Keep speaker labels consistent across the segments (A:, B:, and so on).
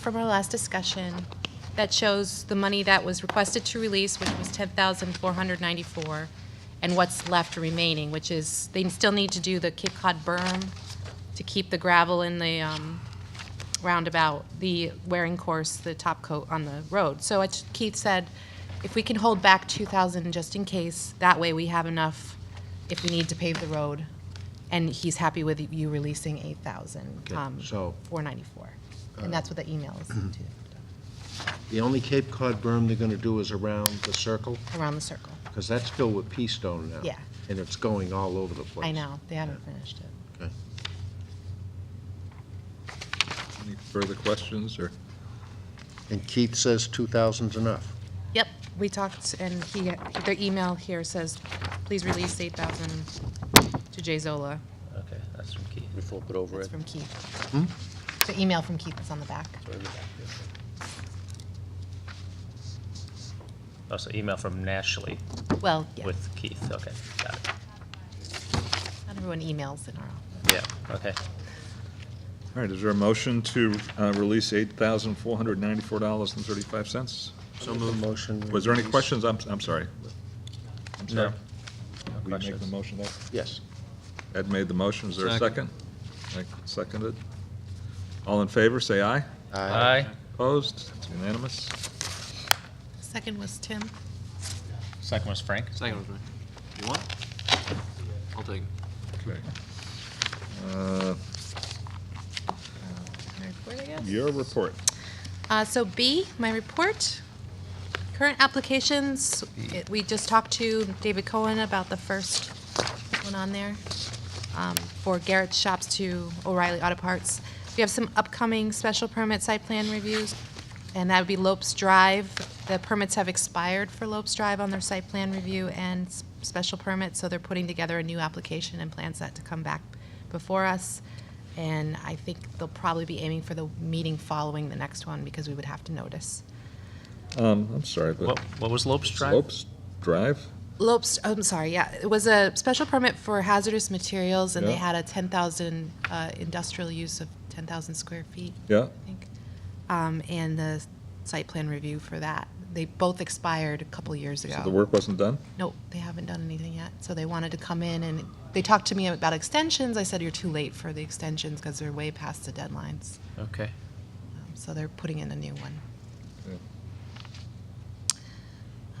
A: from our last discussion that shows the money that was requested to release, which was 10494 and what's left remaining, which is, they still need to do the Cape Cod berm to keep the gravel in the um, roundabout, the wearing course, the top coat on the road. So it's- Keith said, if we can hold back 2,000 just in case, that way we have enough if we need to pave the road. And he's happy with you releasing 8,000,
B: Okay,
A: um,
B: so-
A: 494. And that's what the email is to,
B: The only Cape Cod berm they're going to do is around the circle,
A: around the circle.
B: because that's filled with pea stone now.
A: Yeah.
B: And it's going all over the place.
A: I know, they haven't finished it.
B: Okay.
C: Any further questions, or?
B: And Keith says 2,000's enough.
A: Yep, we talked, and he, their email here says, please release 8,000 to Jay Zola.
D: Okay, that's from Keith.
E: We flip it over
A: That's
E: it.
A: from Keith. The email from Keith is on the back.
E: Throw it in the back there.
D: Also, Oh, email from Nashley
A: Well, yeah,
D: with Keith, okay, got it.
A: not everyone emails in our office.
D: Yeah, okay.
C: All right, is there a motion to uh, release $8,494.35?
B: So moved. Motion.
C: Was there any
B: release.
C: questions? I'm, I'm sorry.
D: No. No
C: We make the
D: questions.
C: motion, Ed?
B: Yes.
C: Ed made the motion, is there a second? Mike Seconded. All in favor, say aye.
D: Aye.
C: Opposed? It's unanimous.
A: Second was Tim.
D: Second was Frank.
F: Second was mine. You want? it? I'll take it.
C: Okay. Uh, Your report.
A: Uh, So B, my report. Current applications, it- we just talked to David Cohen about the first one on there um, for Garrett Shops to O'Reilly Auto Parts. We have some upcoming special permit site plan reviews, and that would be Lopes Drive. The permits have expired for Lopes Drive on their site plan review and s- special permit, so they're putting together a new application and plans that to come back before us. And I think they'll probably be aiming for the meeting following the next one, because we would have to notice.
C: Um, I'm sorry, but.
D: What, what was Lopes Drive?
C: Lopes Drive?
A: Lopes, I'm sorry, yeah, it was a special permit for hazardous materials, and they
C: Yeah.
A: had a 10,000, uh, industrial use of 10,000 square feet.
C: Yeah.
A: I think, um, and the site plan review for that. They both expired a couple years ago.
C: So the work wasn't done?
A: Nope, they haven't done anything yet. So they wanted to come in and they talked to me about extensions. I said, you're too late for the extensions because they're way past the deadlines.
D: Okay.
A: Um, So they're putting in a new one.
C: Yeah.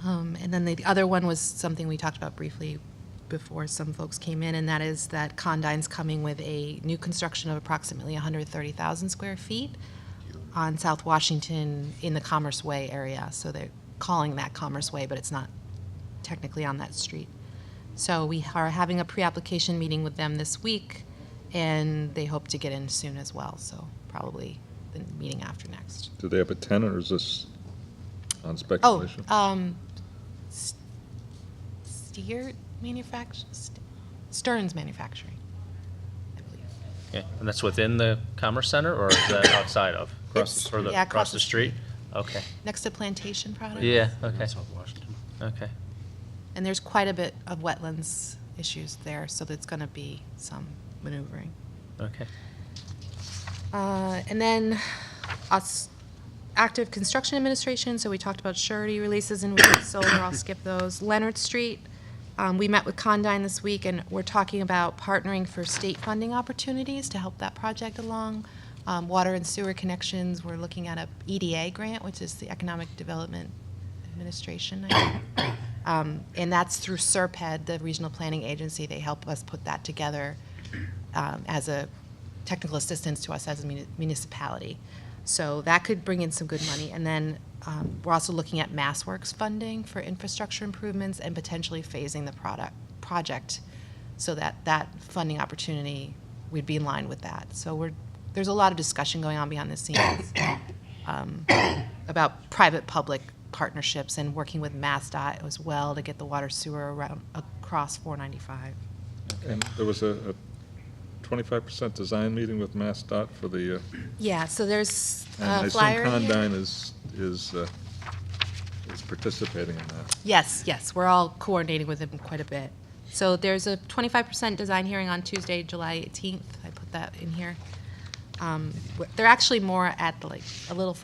A: Um, and then the other one was something we talked about briefly before some folks came in, and that is that Condyne's coming with a new construction of approximately 130,000 square feet on South Washington in the Commerce Way area. So they're calling that Commerce Way, but it's not technically on that street. So we are having a pre-application meeting with them this week, and they hope to get in soon as well. So probably the meeting after next.
C: Do they have a tenant, or is this on
A: Oh,
C: speculation?
A: um, S- Steer Manufact, St- Stearns Manufacturing, I believe.
D: Okay, and that's within the Commerce Center, or is that outside of?
C: Across the
D: Or
A: street. Yeah,
D: Across the street? Okay,
A: Next to Plantation Products.
D: yeah, okay,
F: South Washington.
D: okay.
A: And there's quite a bit of wetlands issues there, so there's gonna be some maneuvering.
D: Okay.
A: Uh, And then us, active construction administration, so we talked about surety releases and we did solar, I'll skip those. Leonard Street, um, we met with Condyne this week and we're talking about partnering for state funding opportunities to help that project along. Um, Water and sewer connections, we're looking at a EDA grant, which is the Economic Development Administration. I think. Um, And that's through SERPED, the Regional Planning Agency. They help us put that together um, as a technical assistance to us as a muni- municipality. So that could bring in some good money. And then um, we're also looking at MassWorks funding for infrastructure improvements and potentially phasing the product, project so that that funding opportunity, we'd be in line with that. So we're, there's a lot of discussion going on behind the scenes um, about private-public partnerships and working with MassDOT as well to get the water sewer around, across 495.
C: And there was a a 25% design meeting with MassDOT for the, uh,
A: Yeah, so there's
C: and I
A: a
C: assume
A: flyer in here.
C: Condyne is, is, uh, is participating in that.
A: Yes, yes, we're all coordinating with them quite a bit. So there's a 25% design hearing on Tuesday, July 18th. I put that in here. Um, w- They're actually more at like, a little